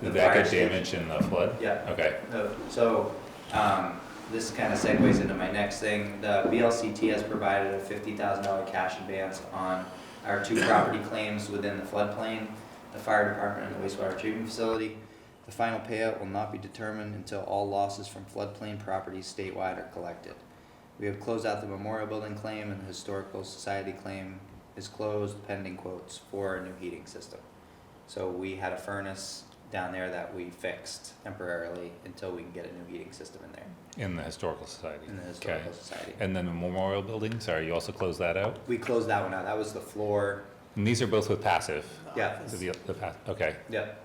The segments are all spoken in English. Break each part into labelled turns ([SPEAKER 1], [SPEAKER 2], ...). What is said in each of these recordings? [SPEAKER 1] The
[SPEAKER 2] fire
[SPEAKER 1] back got
[SPEAKER 2] escape.
[SPEAKER 1] damaged in the flood?
[SPEAKER 2] Yeah.
[SPEAKER 1] Okay,
[SPEAKER 2] No, So, um, this kind of segues into my next thing. The BLCT has provided a fifty thousand dollar cash advance on our two property claims within the floodplain, the fire department and the wastewater treatment facility. The final payout will not be determined until all losses from floodplain properties statewide are collected. We have closed out the memorial building claim and the historical society claim is closed pending quotes for a new heating system. So we had a furnace down there that we fixed temporarily until we can get a new heating system in there,
[SPEAKER 1] in the historical society.
[SPEAKER 2] in the
[SPEAKER 1] Okay.
[SPEAKER 2] historical society.
[SPEAKER 1] And then the memorial building, sorry, you also closed that out?
[SPEAKER 2] We closed that one out, that was the floor,
[SPEAKER 1] And these are both with passive?
[SPEAKER 2] yeah,
[SPEAKER 1] So the, the, pa- okay,
[SPEAKER 2] yep.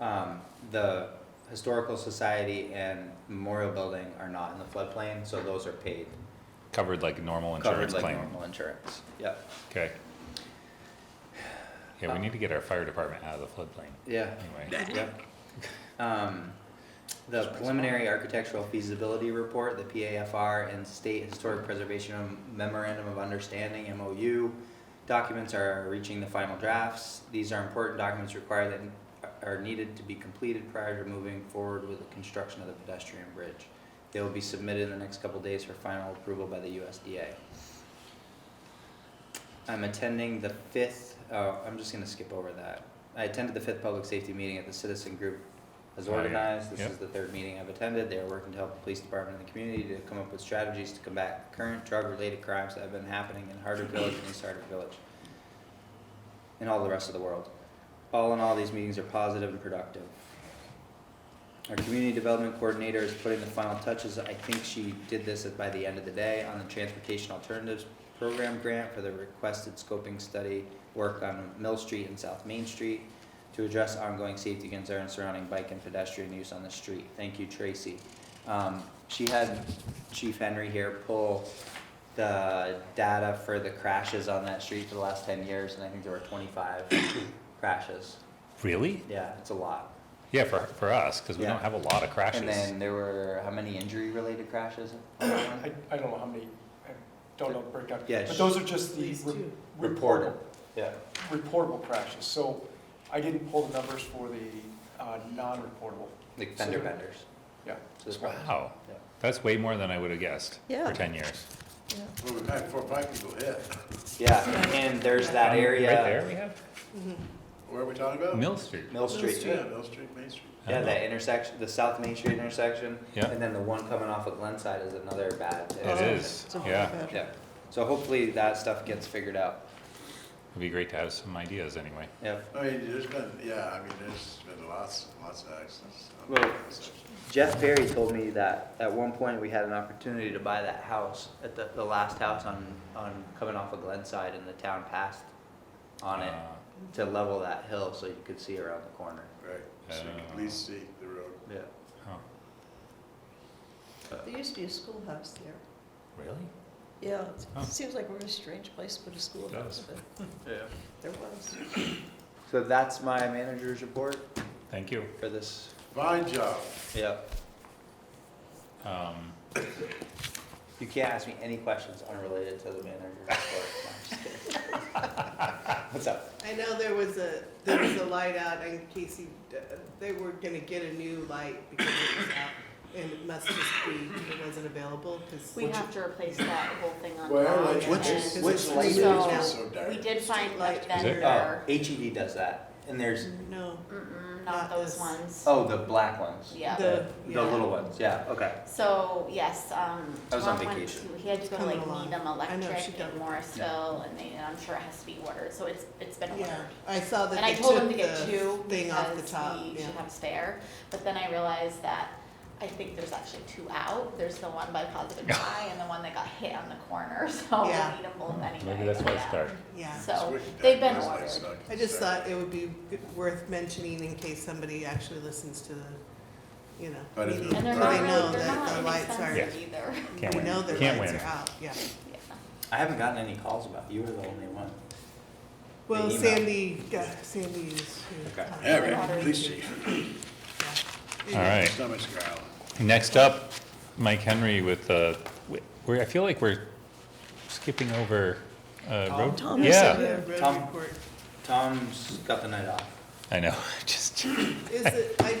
[SPEAKER 2] Um, the historical society and memorial building are not in the floodplain, so those are paid,
[SPEAKER 1] covered like normal
[SPEAKER 2] covered
[SPEAKER 1] insurance
[SPEAKER 2] like
[SPEAKER 1] claim?
[SPEAKER 2] normal insurance, yep.
[SPEAKER 1] Okay. Yeah,
[SPEAKER 2] Uh,
[SPEAKER 1] we need to get our fire department out of the floodplain,
[SPEAKER 2] Yeah,
[SPEAKER 1] anyway.
[SPEAKER 2] Yep. Um, the preliminary architectural feasibility report, the PAFR, and State Historic Preservation Memorandum of Understanding, MOU, documents are reaching the final drafts. These are important documents required that are needed to be completed prior to moving forward with the construction of the pedestrian bridge. They will be submitted in the next couple days for final approval by the USDA. I'm attending the fifth, oh, I'm just gonna skip over that. I attended the fifth public safety meeting at the citizen group as
[SPEAKER 1] Oh, yeah.
[SPEAKER 2] organized. This
[SPEAKER 1] Yep.
[SPEAKER 2] is the third meeting I've attended. They are working to help the police department and the community to come up with strategies to combat current drug-related crimes that have been happening in Harder Village and East Harder Village and all the rest of the world. All in all, these meetings are positive and productive. Our community development coordinator is putting the final touches, I think she did this by the end of the day, on the Transportation Alternatives Program grant for the requested scoping study work on Mill Street and South Main Street to address ongoing safety concerns surrounding bike and pedestrian use on the street. Thank you, Tracy. Um, she had Chief Henry here pull the data for the crashes on that street for the last ten years, and I think there were twenty-five crashes.
[SPEAKER 1] Really?
[SPEAKER 2] Yeah, it's a lot.
[SPEAKER 1] Yeah, for, for us, because we
[SPEAKER 2] Yeah.
[SPEAKER 1] don't have a lot of crashes.
[SPEAKER 2] And then there were, how many injury-related crashes? on that one?
[SPEAKER 3] I, I don't know how many, I don't know the breakdown.
[SPEAKER 2] Yeah,
[SPEAKER 3] But
[SPEAKER 2] sh-
[SPEAKER 3] those are just the
[SPEAKER 4] These
[SPEAKER 3] re-
[SPEAKER 4] two.
[SPEAKER 2] Reported, yeah.
[SPEAKER 3] reportable crashes. So I didn't pull the numbers for the uh, non-reportable.
[SPEAKER 2] Like fender
[SPEAKER 3] So-
[SPEAKER 2] benders.
[SPEAKER 3] Yeah.
[SPEAKER 2] So it's-
[SPEAKER 1] Wow,
[SPEAKER 2] Yeah.
[SPEAKER 1] Oh. that's way more than I would have guessed.
[SPEAKER 4] Yeah.
[SPEAKER 1] For ten years.
[SPEAKER 5] Well, we've had four, five people hit.
[SPEAKER 2] Yeah, and there's that
[SPEAKER 1] Um,
[SPEAKER 2] area.
[SPEAKER 1] Right there we have?
[SPEAKER 5] Where are we talking about?
[SPEAKER 1] Mill Street.
[SPEAKER 2] Mill Street.
[SPEAKER 5] Yeah, Mill Street, Main Street.
[SPEAKER 2] Yeah, that intersection, the South Main Street intersection.
[SPEAKER 1] Yeah.
[SPEAKER 2] And then the one coming off of Glenside is another bad.
[SPEAKER 1] It
[SPEAKER 2] intersection.
[SPEAKER 1] is, yeah.
[SPEAKER 2] Yeah, so hopefully that stuff gets figured out,
[SPEAKER 1] It'd be great to have some ideas anyway.
[SPEAKER 2] yep.
[SPEAKER 5] I mean, there's been, yeah, I mean, there's been lots, lots of accidents. on
[SPEAKER 2] Well-
[SPEAKER 5] that section.
[SPEAKER 2] Jeff Berry told me that at one point we had an opportunity to buy that house at the, the last house on, on coming off of Glenside and the town passed on it
[SPEAKER 1] Uh,
[SPEAKER 2] to level that hill so you could see around the corner.
[SPEAKER 5] Right, so you can
[SPEAKER 1] Oh.
[SPEAKER 5] at least see the road.
[SPEAKER 2] Yeah.
[SPEAKER 1] oh,
[SPEAKER 4] There used to be a schoolhouse there.
[SPEAKER 1] Really?
[SPEAKER 4] Yeah,
[SPEAKER 1] Huh.
[SPEAKER 4] it seems like we're in a strange place to put a schoolhouse,
[SPEAKER 1] does.
[SPEAKER 4] but
[SPEAKER 2] Yeah.
[SPEAKER 4] there was.
[SPEAKER 2] So that's my manager's report
[SPEAKER 1] Thank you.
[SPEAKER 2] for this,
[SPEAKER 5] Fine job.
[SPEAKER 2] yep.
[SPEAKER 1] Um,
[SPEAKER 2] You can't ask me any questions unrelated to the manager's report, No, I'm just kidding. What's up?
[SPEAKER 6] I know there was a, there was a light out in Casey, uh, they were gonna get a new light because it was out. And it must just be, it wasn't available, cause.
[SPEAKER 7] We have to replace that whole thing on.
[SPEAKER 5] Well,
[SPEAKER 7] Broad
[SPEAKER 5] like,
[SPEAKER 7] and-
[SPEAKER 5] which,
[SPEAKER 6] is-
[SPEAKER 2] which
[SPEAKER 5] which
[SPEAKER 6] light
[SPEAKER 5] light is
[SPEAKER 7] is-
[SPEAKER 5] so dark?
[SPEAKER 7] We did find a
[SPEAKER 6] Streetlight.
[SPEAKER 1] it?
[SPEAKER 2] Oh,
[SPEAKER 7] vendor,
[SPEAKER 2] HED does that, and there's,
[SPEAKER 6] No.
[SPEAKER 7] mm-mm, not
[SPEAKER 6] Not
[SPEAKER 7] those
[SPEAKER 6] this.
[SPEAKER 7] ones.
[SPEAKER 2] oh, the black ones.
[SPEAKER 7] Yeah,
[SPEAKER 6] The-
[SPEAKER 2] The
[SPEAKER 6] yeah.
[SPEAKER 2] little ones, yeah, okay.
[SPEAKER 7] so, yes, um,
[SPEAKER 2] I was on
[SPEAKER 7] Tom went
[SPEAKER 2] vacation.
[SPEAKER 7] to, he had to go to
[SPEAKER 6] Coming
[SPEAKER 7] like
[SPEAKER 6] along.
[SPEAKER 7] Needham
[SPEAKER 6] I know, she
[SPEAKER 7] Electric
[SPEAKER 6] got
[SPEAKER 7] in
[SPEAKER 6] it.
[SPEAKER 7] Morrisville, and they, and I'm sure it has to be ordered, so it's, it's been ordered.
[SPEAKER 6] Yeah, I saw that
[SPEAKER 7] And I
[SPEAKER 6] they
[SPEAKER 7] told him
[SPEAKER 6] took
[SPEAKER 7] to get
[SPEAKER 6] the
[SPEAKER 7] two,
[SPEAKER 6] thing off the
[SPEAKER 7] because
[SPEAKER 6] top,
[SPEAKER 7] we
[SPEAKER 6] yeah.
[SPEAKER 7] should have spare, but then I realized that I think there's actually two out, there's the one by Positive Eye and the one that got hit on the corner, so we
[SPEAKER 6] Yeah.
[SPEAKER 7] need them both anyway.
[SPEAKER 1] Maybe that's why
[SPEAKER 7] yeah.
[SPEAKER 1] it's dark.
[SPEAKER 6] Yeah,
[SPEAKER 7] So,
[SPEAKER 5] It's wicked
[SPEAKER 7] they've
[SPEAKER 5] dark.
[SPEAKER 7] been
[SPEAKER 5] It's like
[SPEAKER 7] ordered.
[SPEAKER 5] stuck
[SPEAKER 6] I just
[SPEAKER 5] inside.
[SPEAKER 6] thought it would be good- worth mentioning in case somebody actually listens to the, you know.
[SPEAKER 5] But if
[SPEAKER 6] meeting.
[SPEAKER 5] it's
[SPEAKER 7] And they're
[SPEAKER 6] So
[SPEAKER 7] not
[SPEAKER 6] they
[SPEAKER 7] really,
[SPEAKER 6] know
[SPEAKER 7] they're
[SPEAKER 6] that the
[SPEAKER 7] not
[SPEAKER 6] lights are-
[SPEAKER 7] inexpensive either.
[SPEAKER 1] Can't
[SPEAKER 6] We
[SPEAKER 1] win.
[SPEAKER 6] know their
[SPEAKER 1] Can't
[SPEAKER 6] lights
[SPEAKER 1] win.
[SPEAKER 6] are out, yeah.
[SPEAKER 7] Yeah.
[SPEAKER 2] I haven't gotten any calls about, you were the only one.
[SPEAKER 6] Well,
[SPEAKER 2] email.
[SPEAKER 6] Sandy, yeah, Sandy is.
[SPEAKER 2] Okay.
[SPEAKER 5] Yeah, right, police chief.
[SPEAKER 1] All right.
[SPEAKER 5] Stomach's growling.
[SPEAKER 1] Next up, Mike Henry with, uh, w- we're, I feel like we're skipping over, uh, road.
[SPEAKER 4] Tom is
[SPEAKER 1] Yeah,
[SPEAKER 4] over there.
[SPEAKER 6] Road
[SPEAKER 2] Tom.
[SPEAKER 6] report.
[SPEAKER 2] Tom's got the night off.
[SPEAKER 8] I know, just.
[SPEAKER 1] Is it, I